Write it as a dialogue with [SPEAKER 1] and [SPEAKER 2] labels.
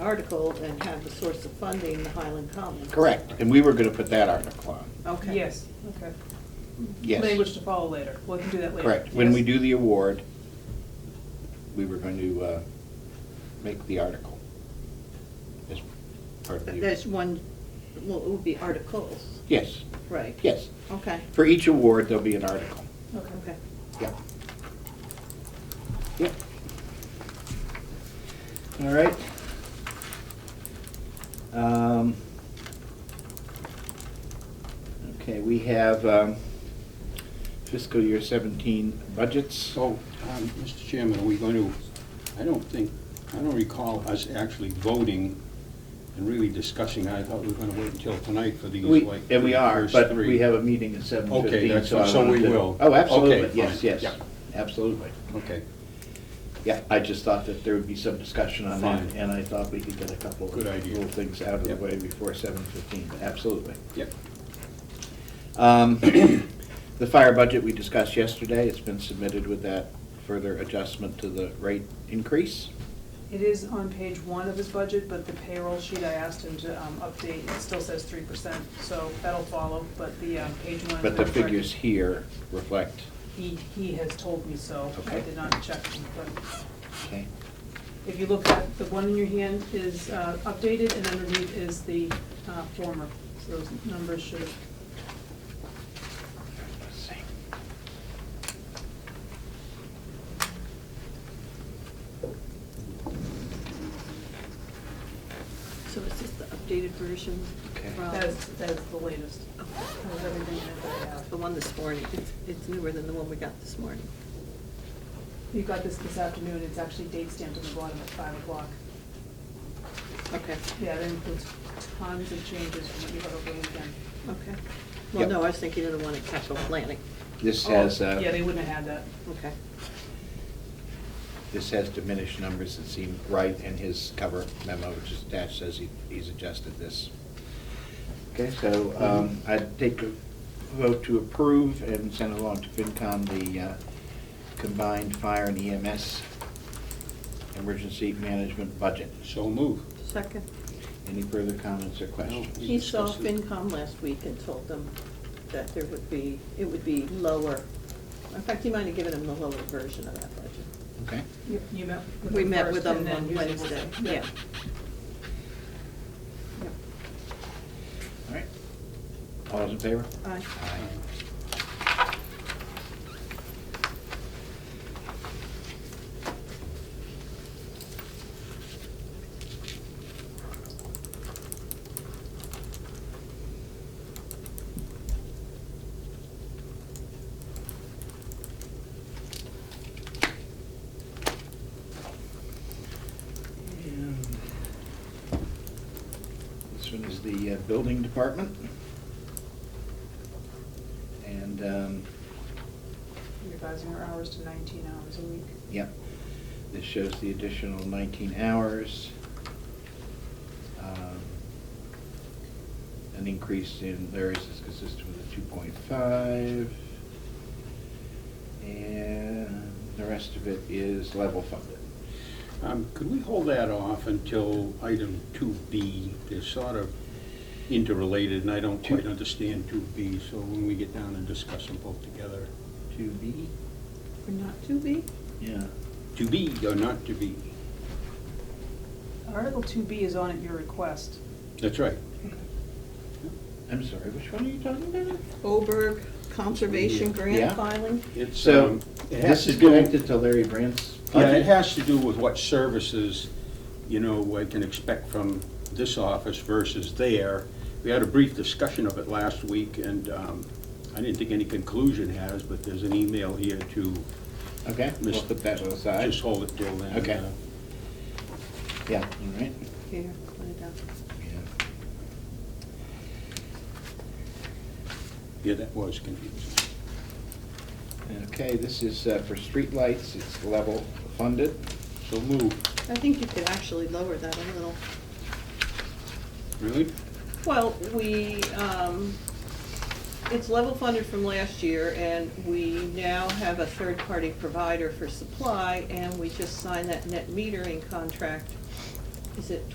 [SPEAKER 1] article and had the source of funding, the Highland Commons.
[SPEAKER 2] Correct, and we were gonna put that article on,
[SPEAKER 1] Okay.
[SPEAKER 3] Yes, okay. Language
[SPEAKER 2] yes,
[SPEAKER 3] to follow later, we can do that later.
[SPEAKER 2] correct. When we
[SPEAKER 3] Yes.
[SPEAKER 2] do the award, we were going to uh, make the article. as part of the-
[SPEAKER 1] There's one, well, it would be articles,
[SPEAKER 2] Yes,
[SPEAKER 1] right?
[SPEAKER 2] yes,
[SPEAKER 1] Okay,
[SPEAKER 2] for each award, there'll be an article,
[SPEAKER 1] okay.
[SPEAKER 2] yeah. Yep. All right. Um, Okay, we have um, fiscal year 17 budgets.
[SPEAKER 4] So, um, Mr. Chairman, are we going to, I don't think, I don't recall us actually voting and really discussing. I thought we were going to wait until tonight for these,
[SPEAKER 2] We,
[SPEAKER 4] like.
[SPEAKER 2] and we are,
[SPEAKER 4] first
[SPEAKER 2] but
[SPEAKER 4] three.
[SPEAKER 2] we have a meeting at seven fifteen.
[SPEAKER 4] Okay, that's- so we will.
[SPEAKER 2] Oh,
[SPEAKER 4] Okay,
[SPEAKER 2] absolutely, yes,
[SPEAKER 4] fine,
[SPEAKER 2] yes,
[SPEAKER 4] yeah.
[SPEAKER 2] absolutely.
[SPEAKER 4] Okay,
[SPEAKER 2] Yeah, I just thought that there would be some discussion on that,
[SPEAKER 4] Fine.
[SPEAKER 2] and I thought we could get a couple of
[SPEAKER 4] Good idea.
[SPEAKER 2] little things out of the
[SPEAKER 4] Yep.
[SPEAKER 2] way before seven fifteen, absolutely.
[SPEAKER 4] yep.
[SPEAKER 2] Um, The fire budget we discussed yesterday, it's been submitted with that further adjustment to the rate increase.
[SPEAKER 3] It is on page one of his budget, but the payroll sheet I asked him to um, update, it still says three percent, so that'll follow, but the um, page one.
[SPEAKER 2] But the figures here reflect,
[SPEAKER 3] He, he has told me so, I
[SPEAKER 2] Okay.
[SPEAKER 3] did not check, but
[SPEAKER 2] okay,
[SPEAKER 3] if you look at, the one in your hand is uh, updated, and underneath is the uh, former, so those numbers should,
[SPEAKER 2] let's see.
[SPEAKER 1] So is this the updated version?
[SPEAKER 2] Okay.
[SPEAKER 1] from-
[SPEAKER 3] that's, that's the latest, uh, that was everything that I have.
[SPEAKER 1] The one this morning, it's, it's newer than the one we got this morning.
[SPEAKER 3] You got this this afternoon, it's actually date stamped on the bottom at five o'clock.
[SPEAKER 1] Okay,
[SPEAKER 3] Yeah, that includes tons of changes from what you had over the weekend.
[SPEAKER 1] okay. Well,
[SPEAKER 2] Yep.
[SPEAKER 1] no, I was thinking of the one at capital planning.
[SPEAKER 2] This has,
[SPEAKER 3] Oh, Yeah, they
[SPEAKER 2] uh,
[SPEAKER 3] wouldn't have had that.
[SPEAKER 1] Okay,
[SPEAKER 2] this has diminished numbers that seem right, and his cover memo, which is attached, says he- he's adjusted this. Okay, so um, I'd take a vote to approve and send along to FinCom the uh, combined fire and EMS emergency management budget.
[SPEAKER 4] So move.
[SPEAKER 1] second.
[SPEAKER 2] Any further comments or questions?
[SPEAKER 4] We
[SPEAKER 1] He saw
[SPEAKER 4] discussed it.
[SPEAKER 1] FinCom last week and told them that there would be, it would be lower. In fact, you might have given him the lower version of that budget.
[SPEAKER 2] Okay.
[SPEAKER 3] You you met with them first.
[SPEAKER 1] We met with them
[SPEAKER 3] and then
[SPEAKER 1] on
[SPEAKER 3] you did-
[SPEAKER 1] Wednesday, yeah. Yep.
[SPEAKER 2] All right. All those in favor?
[SPEAKER 1] Aye.
[SPEAKER 2] This one is the uh, building department. And, um,
[SPEAKER 3] You're revising our hours to nineteen hours a week.
[SPEAKER 2] yep, this shows the additional 19 hours. Um, An increase in Larry's is consistent with the 2.5. And the rest of it is level funded.
[SPEAKER 4] Um, Could we hold that off until item two B? They're sort of interrelated, and I don't
[SPEAKER 2] Two-
[SPEAKER 4] quite understand two B, so when we get down and discuss them both together.
[SPEAKER 2] To be?
[SPEAKER 1] Or not to be?
[SPEAKER 2] Yeah.
[SPEAKER 4] To be or not to be?
[SPEAKER 3] Article two B is on at your request.
[SPEAKER 4] That's right.
[SPEAKER 2] I'm sorry, which one are you talking about?
[SPEAKER 1] Oberg Conservation
[SPEAKER 2] Yeah.
[SPEAKER 1] Grant filing?
[SPEAKER 4] It's,
[SPEAKER 2] So,
[SPEAKER 4] um, it
[SPEAKER 2] this
[SPEAKER 4] has to
[SPEAKER 2] is
[SPEAKER 4] do-
[SPEAKER 2] connected to Larry Brandt's
[SPEAKER 4] Yeah, it
[SPEAKER 2] budget?
[SPEAKER 4] has to do with what services, you know, I can expect from this office versus there. We had a brief discussion of it last week, and um, I didn't think any conclusion has, but there's an email here to
[SPEAKER 2] Okay, we'll
[SPEAKER 4] Miss-
[SPEAKER 2] put that to the side.
[SPEAKER 4] just hold it till then.
[SPEAKER 2] Okay.
[SPEAKER 4] uh,
[SPEAKER 2] Yeah, all right.
[SPEAKER 1] Here, put it down.
[SPEAKER 2] Yeah.
[SPEAKER 4] Yeah, that was confusing.
[SPEAKER 2] Okay, this is uh, for streetlights, it's level funded.
[SPEAKER 4] So move,
[SPEAKER 1] I think you could actually lower that a little.
[SPEAKER 4] really?
[SPEAKER 1] Well, we, um, it's level funded from last year, and we now have a third-party provider for supply, and we just signed that net metering contract. Is it